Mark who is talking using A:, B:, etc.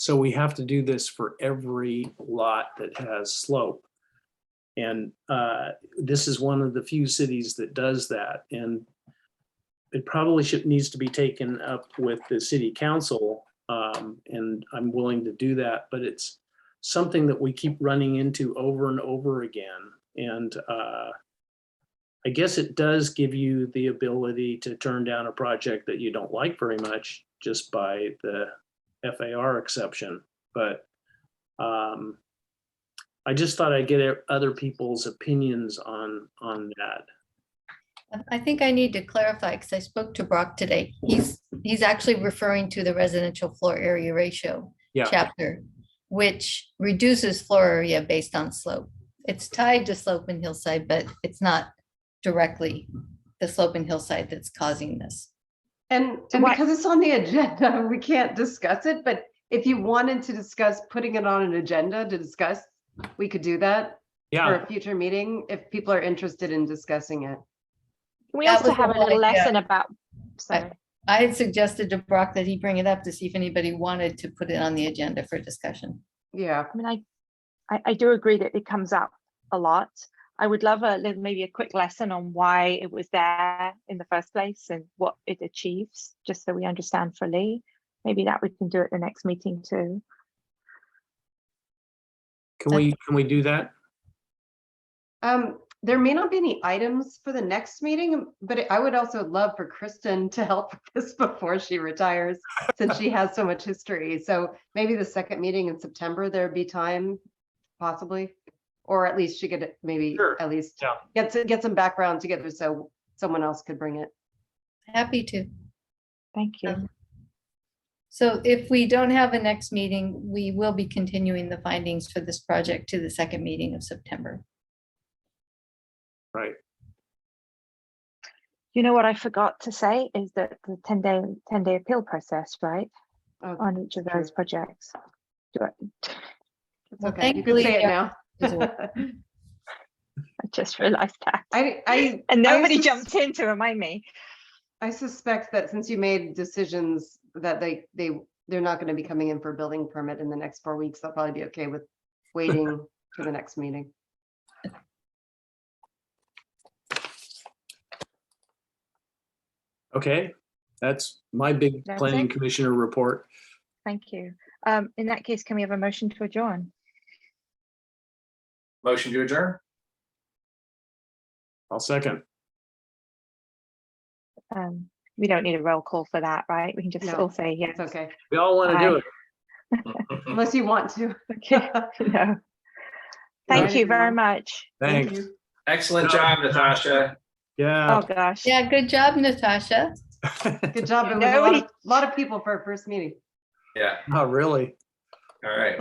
A: So we have to do this for every lot that has slope. And uh, this is one of the few cities that does that and it probably should, needs to be taken up with the city council. um, And I'm willing to do that, but it's something that we keep running into over and over again. And uh, I guess it does give you the ability to turn down a project that you don't like very much just by the FAR exception, but um, I just thought I'd get other people's opinions on, on that.
B: I- I think I need to clarify, because I spoke to Brock today. He's, he's actually referring to the residential floor area ratio
A: Yeah.
B: chapter, which reduces floor area based on slope. It's tied to slope and hillside, but it's not directly the slope and hillside that's causing this.
C: And, and
D: Why-
C: because it's on the agenda, we can't discuss it, but if you wanted to discuss putting it on an agenda to discuss, we could do that for
A: Yeah,
C: a future meeting if people are interested in discussing it.
D: Can we
B: That
D: also
B: was the
D: have a
B: whole
D: little
B: idea.
D: lesson about, sorry,
B: I had suggested to Brock that he bring it up to see if anybody wanted to put it on the agenda for discussion.
C: Yeah,
D: I mean, I, I, I do agree that it comes up a lot. I would love a little, maybe a quick lesson on why it was there in the first place and what it achieves, just so we understand fully. Maybe that we can do at the next meeting too.
A: can we, can we do that?
C: um, there may not be any items for the next meeting, but I would also love for Kristen to help with this before she retires, since she has so much history. So maybe the second meeting in September, there'd be time possibly, or at least she could maybe,
A: Sure,
C: at least
A: yeah.
C: get, to- get some background together so someone else could bring it.
B: Happy to.
D: Thank you.
B: Um, So if we don't have a next meeting, we will be continuing the findings for this project to the second meeting of September.
A: Right.
D: You know what I forgot to say is that the ten day, ten day appeal process, right,
C: Oh,
D: on each of those
C: true.
D: projects. Do I-
C: It's
B: Well,
C: okay, you can
B: thankfully,
C: say it
B: yeah.
C: now.
B: Is it-
D: I just realized that.
C: I, I.
D: And
C: I
D: nobody
C: sus-
D: jumped in to remind me.
C: I suspect that since you made decisions that they, they, they're not gonna be coming in for a building permit in the next four weeks, they'll probably be okay with waiting for the next meeting.
A: Okay, that's my big
D: That's
A: planning
D: it.
A: commissioner report.
D: Thank you. Um, in that case, can we have a motion to adjourn?
E: Motion to adjourn?
A: I'll second.
D: Um, we don't need a roll call for that, right? We can just
C: No,
D: all say yes.
C: It's okay,
A: We all want to do
D: Aye.
A: it.
C: unless you want to.
D: Okay. No. Thank you very
C: everyone.
D: much.
C: Thank
A: Thanks.
C: you.
E: Excellent job, Natasha.
D: Oh,
A: Yeah.
D: gosh.
B: Yeah, good job, Natasha.
C: Good job. It was a
D: No,
C: lot
D: we-
C: of, lot of people for our first meeting.
E: Yeah,
A: Not really.
E: all right.